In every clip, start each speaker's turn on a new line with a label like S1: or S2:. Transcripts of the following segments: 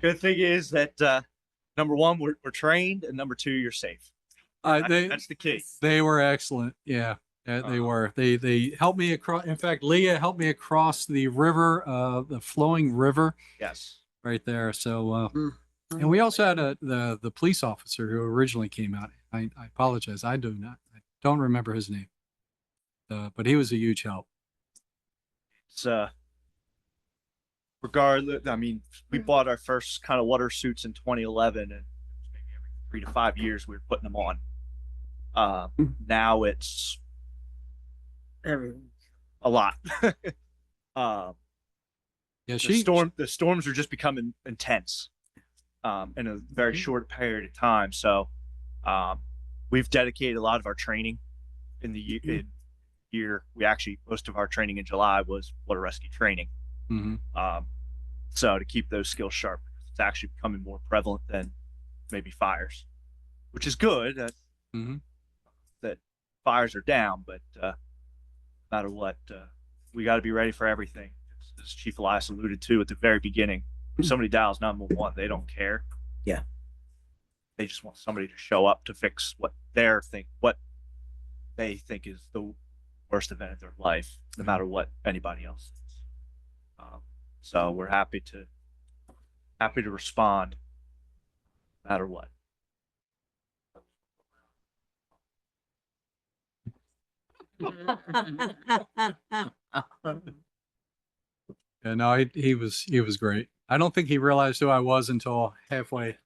S1: Good thing is that, uh, number one, we're, we're trained and number two, you're safe.
S2: Uh,
S1: That-
S2: they,
S1: That's the key.
S2: they were excellent. Yeah, yeah, they
S1: Uh-huh.
S2: were. They, they helped me across. In fact, Leah helped me across the river, uh, the flowing river
S1: Yes.
S2: right there. So, uh,
S3: Mm.
S2: and we also had a, the, the police officer who originally came out. I, I apologize. I do not, I don't remember his name. Uh, but he was a huge help.
S1: It's, uh, regardless, I mean, we bought our first kind of water suits in 2011 and maybe every three to five years we were putting them on. Uh, now it's
S3: Everyone.
S1: a lot. um,
S2: Yeah,
S1: the
S2: she,
S1: storm the storms are just becoming intense um, in a
S2: Mm-hmm.
S1: very short period of time. So um, we've dedicated a lot of our training in the ye-
S2: Mm-hmm.
S1: in year. We actually most of our training in July was water rescue training.
S2: Mhm.
S1: Um, so to keep those skills sharp, it's actually becoming more prevalent than maybe fires, which is good. That,
S2: Mhm.
S1: that fires are down, but uh, no matter what, uh, we got to be ready for everything. As Chief Elias alluded to at the very beginning, if somebody dials 911, they don't care.
S3: Yeah.
S1: They just want somebody to show up to fix what they're think what they think is the worst event of their life, no matter what anybody else thinks. Um, so we're happy to happy to respond, no matter what.
S2: yeah, no, he, he was, he was great. I don't think he realized who I was until halfway.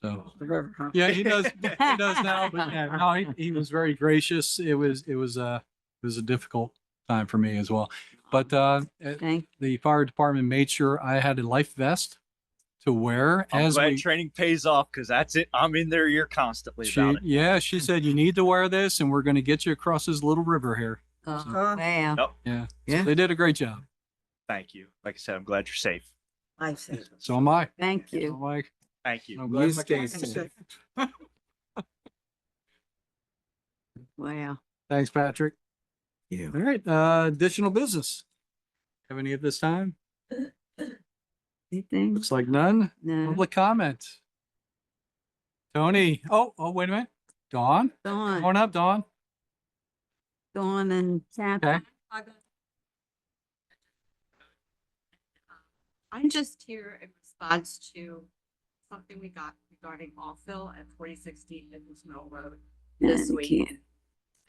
S2: So.
S3: The river, huh?
S2: Yeah, he does. he does now. But yeah, no, he, he was very gracious. It was it was uh it was a difficult time for me as well. But uh, eh,
S4: Thank-
S2: the fire department made sure I had a life vest to wear
S1: I'm
S2: as
S1: glad
S2: we.
S1: training pays off because that's it. I'm in their ear constantly
S2: She,
S1: about it.
S2: yeah, she said you need to wear this, and we're going to get you across this little river here.
S3: Uh,
S4: oh, wow.
S2: Yeah, So
S3: Yeah.
S2: they did a great job.
S1: Thank you. Like I said, I'm glad you're safe.
S3: I see.
S2: So am I.
S4: Thank
S2: So
S4: you.
S2: am I.
S1: Thank you.
S2: I'm glad
S5: You
S2: my
S5: stay
S2: kids are
S5: safe.
S2: safe.
S4: Wow.
S2: Thanks, Patrick.
S5: Yeah.
S2: All right, uh, additional business. Have any at this time?
S4: Anything?
S2: Looks like none.
S6: Mm-hmm.
S4: No.
S2: Public comment. Tony, oh, oh, wait a minute. Dawn,
S4: Go
S2: come
S4: on,
S2: on up, Dawn.
S4: go on and tap.
S2: Okay.
S6: I'm just here in response to something we got regarding Allville at forty sixteen Nichols Mill Road this
S4: No, we
S6: week.
S4: can't.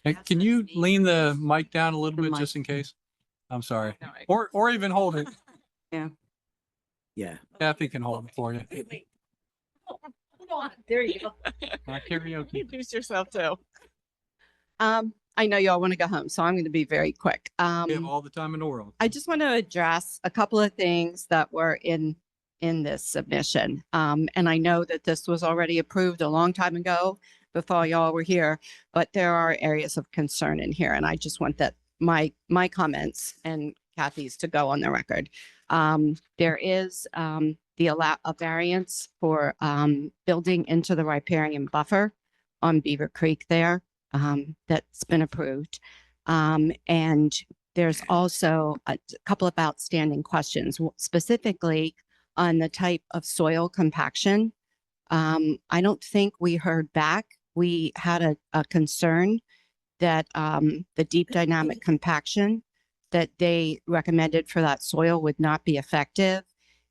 S2: Hey,
S6: That's
S2: Can
S6: the
S2: you
S6: speed.
S2: lean the mic down a little
S4: The
S2: bit
S4: mic.
S2: just in case? I'm sorry.
S6: No, I-
S2: Or, or even hold it.
S5: Yeah.
S2: Kathy can hold it for you.
S6: Wait, wait. Hold on, There you go.
S2: Uh, karaoke.
S6: Introduce yourself too. Um, I know y'all want to go home, so I'm going to be very quick.
S2: We have
S6: Um,
S2: all the time in the world.
S6: I just want to address a couple of things that were in, in this submission. Um, and I know that this was already approved a long time ago before y'all were here, but there are areas of concern in here. And I just want that, my, my comments and Kathy's to go on the record. Um, there is, um, the allow, a variance for, um, building into the riparian buffer on Beaver Creek there, um, that's been approved. Um, and there's also a t- couple of outstanding questions, w- specifically on the type of soil compaction. Um, I don't think we heard back. We had a, a concern that, um, the deep dynamic compaction that they recommended for that soil would not be effective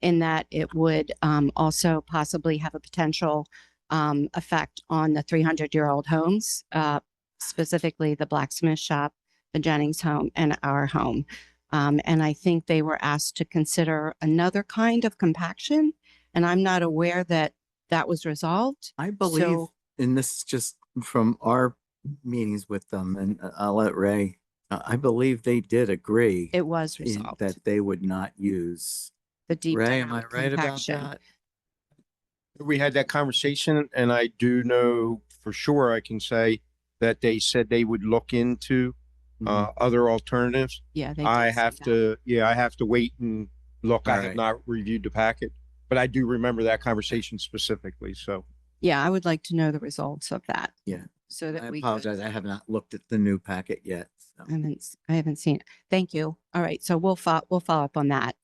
S6: in that it would, um, also possibly have a potential, um, effect on the 300-year-old homes, uh, specifically the blacksmith shop the Jennings home and our home. Um, and I think they were asked to consider another kind of compaction. And I'm not aware that that was resolved.
S5: I believe,
S6: So-
S5: and this is just from our meetings with them, and I- I'll let Ray, uh, I believe they did agree
S6: It was
S5: in-
S6: resolved.
S5: that they would not use.
S6: the deep
S5: Ray, am I
S6: down
S5: right about
S6: compaction.
S5: that?
S7: we had that conversation and I do know for sure, I can say that they said they would look into
S5: Mm-hmm.
S7: uh, other alternatives.
S6: Yeah. Mm-hmm. they
S7: I
S6: did say
S7: have
S6: that.
S7: to, yeah, I have to wait and look. I have
S5: Alright.
S7: not reviewed the packet, but I do remember that conversation specifically. So
S6: Yeah, I would like to know the results of that.
S5: Yeah.
S6: So that
S5: I
S6: we. could-
S5: apologize, I have not looked at the new packet yet. so.
S6: I haven't, s- I haven't seen it. Thank you. All right. So we'll fo- we'll follow up on that.